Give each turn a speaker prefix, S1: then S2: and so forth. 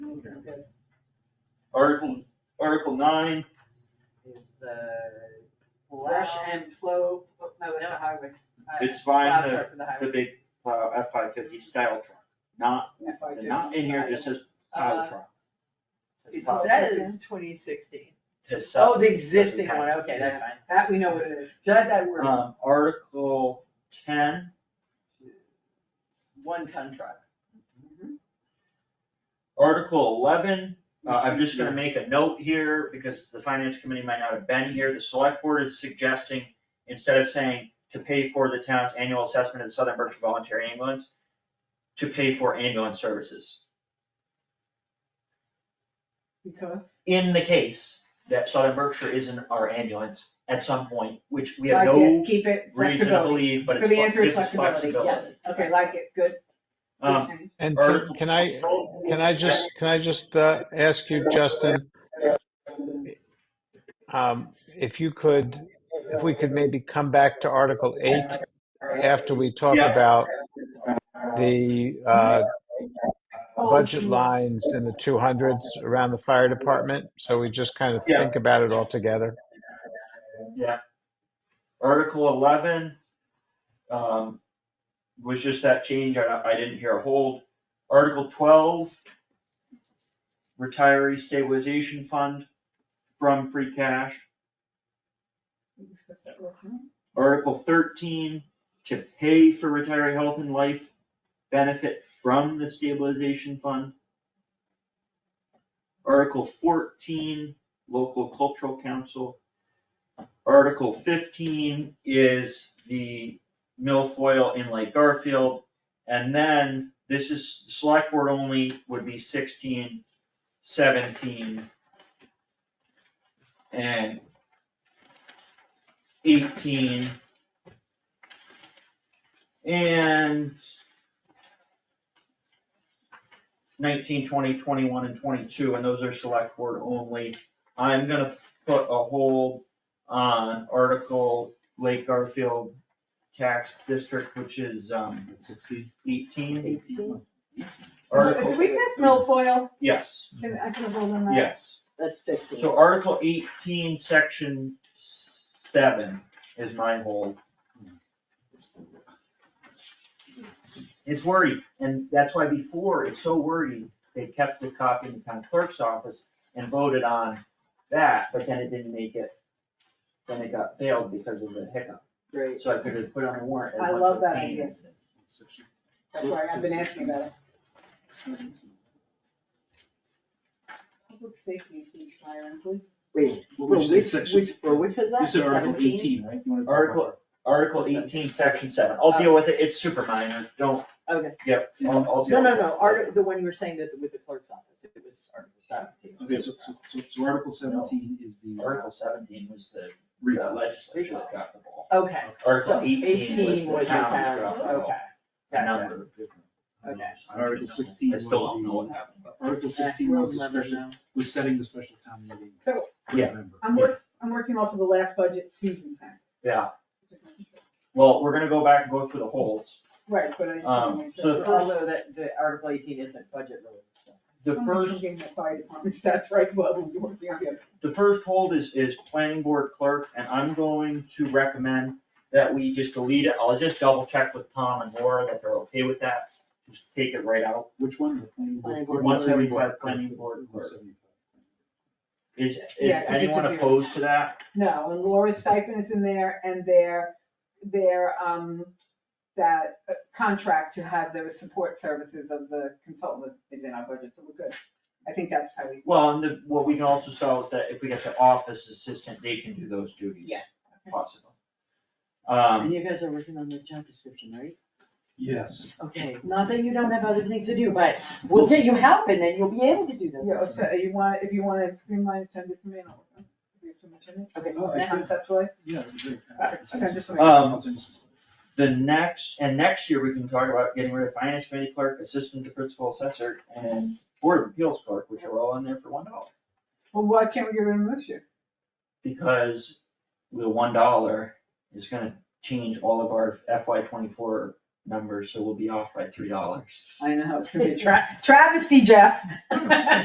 S1: good,
S2: Article, Article nine,
S1: is the.
S3: Rush and flow, oh, no, it's
S1: No.
S3: a highway. Uh,
S2: it's fine,
S1: Plow
S2: the,
S1: truck for the highway.
S2: the big plow, uh, F five fifty style truck, not,
S3: F.I.J.
S2: not in here, it just says plow
S1: Uh,
S2: truck.
S1: It
S2: Plow.
S1: says twenty sixteen.
S2: The sub-
S1: Oh, the existing
S2: doesn't
S1: one,
S2: have-
S1: okay, that's fine.
S3: That we know what it is.
S1: That, that word,
S2: Um, Article ten,
S1: one ton truck.
S2: Article eleven, uh, I'm just gonna make a note here, because the finance committee might not have been here, the select board is suggesting, instead of saying to pay for the town's annual assessment of the Southern Berkshire Voluntary Ambulance, to pay for ambulance services,
S3: Because
S2: in the case that Southern Berkshire isn't our ambulance at some point, which we
S3: I
S2: have
S3: can
S2: no
S3: keep it
S2: reason to
S3: flexibility.
S2: believe, but
S3: So
S2: it's,
S3: the
S2: flex-
S3: answer is
S2: gives us
S3: flexibility,
S2: flexibility.
S3: yes. Okay, like it, good.
S2: Um,
S3: Okay.
S4: And
S2: Article
S4: can, can I,
S2: Um,
S4: can I just, can I just uh, ask you, Justin? um, If you could, if we could maybe come back to Article 8 after we talk
S2: Yeah.
S4: about the uh, budget lines in the 200s around the fire department, so we just kind of
S2: Yeah.
S4: think about it all together.
S2: Article eleven, um, was just that change, I, I didn't hear a hold. Article twelve, retiree stabilization fund from free cash. Article thirteen, to pay for retiree health and life benefit from the stabilization fund. Article fourteen, local cultural council. Article fifteen is the milfoil in Lake Garfield. And then this is, select board only would be sixteen, seventeen, and eighteen. And nineteen, twenty, twenty-one, and twenty-two, and those are select board only. I'm gonna put a hold on article Lake Garfield tax district, which is, um,
S5: Sixteen.
S2: eighteen.
S3: Eighteen.
S2: Article,
S3: Did we miss milfoil?
S2: yes,
S3: Can, I can hold on that.
S2: yes.
S1: That's fifteen.
S5: uh,
S2: So Article eighteen, section seven is my hold. It's worried, and that's why before, it's so worried, they kept the copy in the town clerk's office and voted on that, but then it didn't make it. Then it got failed because of the hiccup,
S1: Great.
S2: so I figured put it on the warrant. as
S3: I
S2: much
S3: love
S2: of a
S3: that
S2: pain.
S3: idea. That's why I've been asking about it. Public safety, please, Myron, please.
S1: Wait,
S5: What would you say,
S1: which,
S5: section?
S1: which, for which was that?
S5: You said Article
S1: 17?
S5: eighteen, right? You wanna talk about-
S2: Article, Article eighteen, section seven, I'll deal with it, it's super minor, don't,
S1: Okay,
S2: yep, I'll, I'll deal
S1: no,
S2: with
S1: no,
S2: it.
S1: no, art, the one you were saying that with the clerk's office, it was Article seventeen.
S5: Okay, so, so- so, so Article seventeen is the.
S2: Article seventeen was the
S5: re-
S2: legislature that got the ball.
S1: Okay,
S2: Article
S1: so
S2: eighteen was
S1: eighteen
S2: the
S1: was the
S2: town
S1: town,
S2: that got the ball.
S1: okay,
S2: The
S1: gotcha.
S2: number.
S1: Okay.
S5: Article sixteen
S2: I
S5: was
S2: still don't know what
S5: the,
S2: happened.
S5: Article sixteen
S1: We'll
S5: was the
S1: remember
S5: special,
S1: now.
S5: was setting the special town meeting.
S3: So-
S2: Yeah.
S5: Remember.
S3: I'm work, I'm working off of the last budget Susan sent.
S2: Yeah, well, we're gonna go back and go through the holds.
S3: Right, but I. just wanna
S2: Um,
S3: make
S2: so
S3: sure.
S2: the first-
S1: Although that, the Article eighteen isn't budget related, so.
S2: The
S3: I'm
S2: first,
S3: thinking the fire department, that's right, well, we're working on it.
S2: the first hold is, is planning board clerk, and I'm going to recommend that we just delete it. I'll just double check with Tom and Laura that they're okay with that. Just take it right out.
S5: Which one? The planning
S1: Planning board.
S2: One seventy-five planning board
S5: One
S2: clerk.
S5: seventy-five.
S2: Is, is
S3: Yeah, 'cause it's
S2: anyone
S3: a zero.
S2: opposed to that?
S3: No, and Laura's stipend is in there and their, their, um, that uh, contract to have the support services of the consultant is in our budget, so we're good. I think that's how we,
S2: Well, and the, what we can also sell is that if we get the office assistant, they can do those duties.
S3: Yeah.
S2: Possible. Um,
S6: And you guys are working on the job description, right?
S5: Yes.
S6: Okay, not that you don't have other things to do, but we'll get you help and then you'll be able to do them.
S3: yeah, so you want, if you wanna streamline, it, send it to me and I'll. if you have too much in it.
S6: Okay.
S5: Oh, I could-
S3: Conceptually,
S5: Yeah, that'd be great.
S3: Alright, okay, just a
S2: Um,
S5: I'll send you some.
S2: the next, and next year, we can talk about getting rid of finance committee clerk, assistant to principal assessor, and board of appeals clerk, which are all in there for one dollar.
S3: well, why can't we get rid of them this year?
S2: Because the one dollar is gonna change all of our FY twenty-four numbers, so we'll be off by three dollars.
S3: I know, it's gonna be a tra- travesty, Jeff.